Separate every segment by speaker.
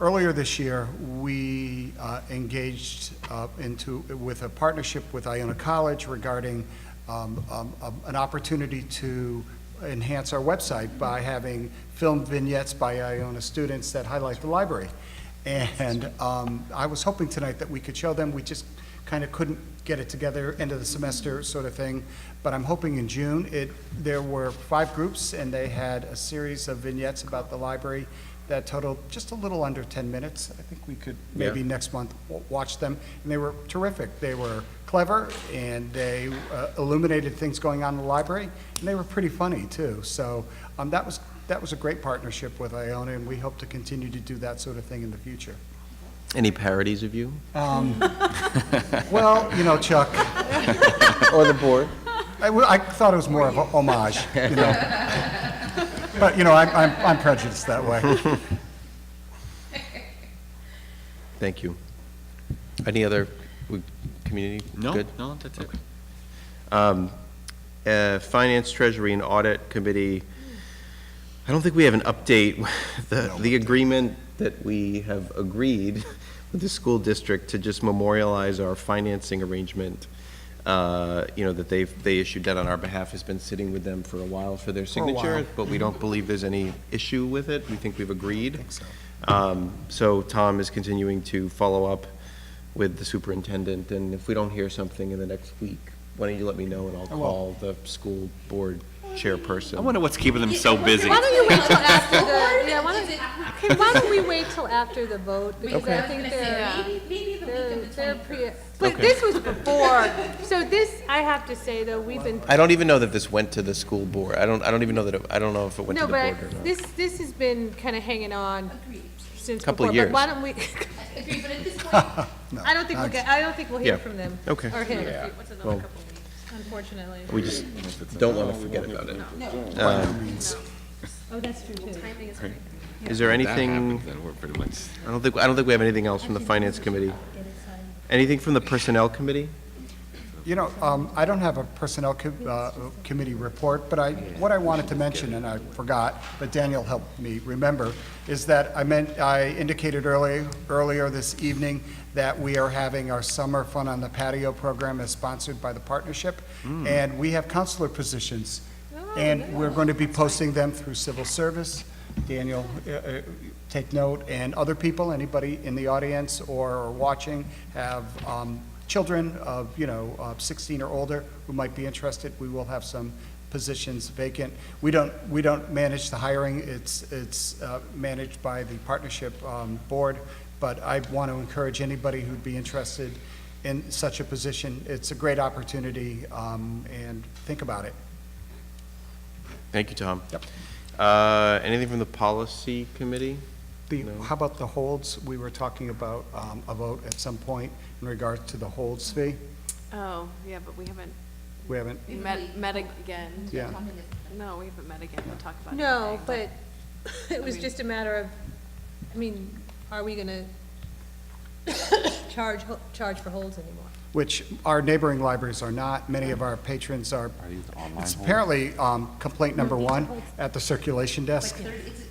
Speaker 1: Earlier this year, we uh, engaged uh, into, with a partnership with Iona College regarding um, um, um, an opportunity to enhance our website by having film vignettes by Iona students that highlight the library. And um, I was hoping tonight that we could show them, we just kind of couldn't get it together, end of the semester sort of thing. But I'm hoping in June, it, there were five groups, and they had a series of vignettes about the library that totaled just a little under 10 minutes. I think we could maybe next month w- watch them. And they were terrific. They were clever, and they uh, illuminated things going on in the library, and they were pretty funny, too. So um, that was, that was a great partnership with Iona, and we hope to continue to do that sort of thing in the future.
Speaker 2: Any parodies of you?
Speaker 1: Well, you know, Chuck,
Speaker 2: Or Oh, the board?
Speaker 1: I, w- I thought it was more of a homage, you know. But, you know, I'm, I'm- I'm prejudiced that way.
Speaker 2: Thank you. Any other w- community?
Speaker 3: No,
Speaker 2: Good?
Speaker 3: no, that's it.
Speaker 2: Um, uh, Finance, Treasury, and Audit Committee, I don't think we have an update. The, the agreement that we have agreed with the school district to just memorialize our financing arrangement, uh, you know, that they've, they issued that on our behalf, has been sitting with them for a while for their
Speaker 1: For a while.
Speaker 2: signature, but we don't believe there's any issue with it. We think we've agreed. Um, So Tom is continuing to follow up with the superintendent, and if we don't hear something in the next week, why don't you let me know, and I'll
Speaker 1: will.
Speaker 2: call the school board chairperson.
Speaker 3: I wonder what's keeping them so busy.
Speaker 4: Why don't you wait till after the, yeah, why don't, okay, why don't we wait till after the vote? Because I think they're,
Speaker 5: Maybe, maybe the week
Speaker 4: they're,
Speaker 5: of the
Speaker 4: they're
Speaker 5: 21st.
Speaker 4: pre, but this was before, so this, I have to say though, we've been,
Speaker 2: I don't even know that this went to the school board. I don't, I don't even know that, it- I don't know if it went to
Speaker 4: no,
Speaker 2: the board
Speaker 4: but
Speaker 2: or not.
Speaker 4: this, this has been kind of hanging on since before.
Speaker 2: Couple of
Speaker 4: But why don't we,
Speaker 5: Agreed, but at this point,
Speaker 4: I don't think we'll get, I don't think we'll
Speaker 2: Yeah.
Speaker 4: hear from them.
Speaker 2: Okay.
Speaker 4: Or
Speaker 2: Yeah.
Speaker 4: him,
Speaker 2: Well,
Speaker 4: unfortunately.
Speaker 2: We just don't want to forget about it. Um,
Speaker 4: Oh, that's true too.
Speaker 2: Is there
Speaker 3: That
Speaker 2: anything,
Speaker 3: happens, then we're pretty much,
Speaker 2: I don't think, I don't think we have anything else from the finance committee. Anything from the personnel committee?
Speaker 1: You know, um, I don't have a Personnel co- uh, Committee report, but I, what I wanted to mention, and I forgot, but Daniel helped me remember, is that I meant, I indicated earlier, earlier this evening that we are having our Summer Fun on the Patio program as sponsored by the partnership, and we have counselor positions, and we're going to be posting them through civil service. Daniel, uh, uh, take note, and other people, anybody in the audience or watching have um, children of, you know, uh, 16 or older who might be interested, we will have some positions vacant. We don't, we don't manage the hiring, it's, it's uh, managed by the partnership um, board, but I want to encourage anybody who'd be interested in such a position, it's a great opportunity, um, and think about it.
Speaker 2: Thank you, Tom. Uh, anything from the policy committee?
Speaker 1: The,
Speaker 2: No.
Speaker 1: how about the holds? We were talking about um, a vote at some point in regards to the holds fee.
Speaker 6: Oh, yeah, but we haven't
Speaker 1: We haven't,
Speaker 6: met, met again.
Speaker 1: yeah.
Speaker 6: No, we haven't met again, we'll talk about it.
Speaker 4: No,
Speaker 6: today,
Speaker 4: but it was
Speaker 6: mean-
Speaker 4: just a matter of, I mean, are we gonna charge, ho- charge for holds anymore?
Speaker 1: which our neighboring libraries are not. Many of our patrons are, it's apparently um, complaint number one at the circulation desk,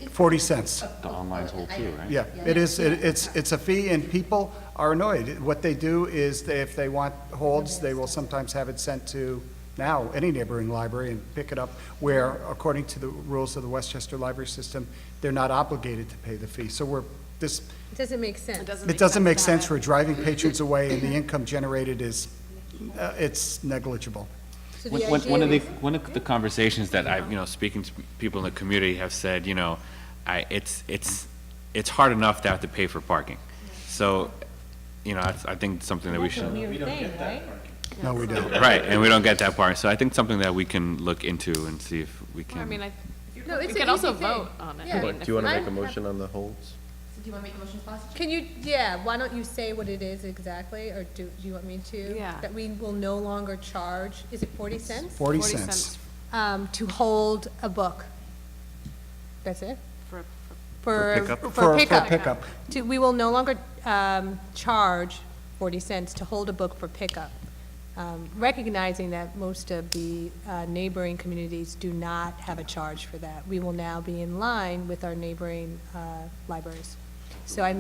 Speaker 1: 40 cents.
Speaker 7: The online's whole too, right?
Speaker 1: Oh, Yeah, it is, it- it's, it's a fee, and people are annoyed. What they do is, they- if they want holds, they will sometimes have it sent to now, any neighboring library, and pick it up, where, according to the rules of the Westchester Library System, they're not obligated to pay the fee. So we're, this,
Speaker 4: It doesn't make sense.
Speaker 6: It doesn't
Speaker 1: it
Speaker 6: make sense.
Speaker 1: doesn't make
Speaker 6: to
Speaker 1: sense,
Speaker 6: have it.
Speaker 1: we're driving patrons away, and the income generated is, uh, it's negligible.
Speaker 4: So
Speaker 3: one
Speaker 4: the
Speaker 3: one- one of
Speaker 4: idea
Speaker 3: the,
Speaker 4: is-
Speaker 3: one of the conversations that I, you know, speaking to people in the community have said, you know, I, it's, it's, it's hard enough to have to pay for parking. So, you know, that's- I think something that we should.
Speaker 1: No, we don't.
Speaker 3: Right, and we don't get that part, so I think something that we can look into and see if we
Speaker 6: Well, I mean,
Speaker 3: can.
Speaker 6: I,
Speaker 4: No,
Speaker 6: we
Speaker 4: it's an
Speaker 6: could also
Speaker 4: easy thing.
Speaker 6: vote on
Speaker 4: Yeah.
Speaker 6: it.
Speaker 2: Do you want to
Speaker 4: I'm
Speaker 2: make a
Speaker 4: hap-
Speaker 2: motion on the holds?
Speaker 5: do you want to make a motion, Foster?
Speaker 4: Can you, yeah, why don't you say what it is exactly, or do, do you want me to?
Speaker 6: Yeah.
Speaker 4: That we will no longer charge, is it forty cents?
Speaker 1: 40
Speaker 6: Forty
Speaker 1: cents.
Speaker 6: cents
Speaker 4: Um, to hold a book. That's it?
Speaker 6: for,
Speaker 4: For,
Speaker 3: pickup?
Speaker 4: for
Speaker 1: For
Speaker 4: pickup.
Speaker 1: pickup.
Speaker 4: To, we will no longer, um, charge forty cents to hold a book for pickup. Um, recognizing that most of the, uh, neighboring communities do not have a charge for that. We will now be in line with our neighboring, uh, libraries. So I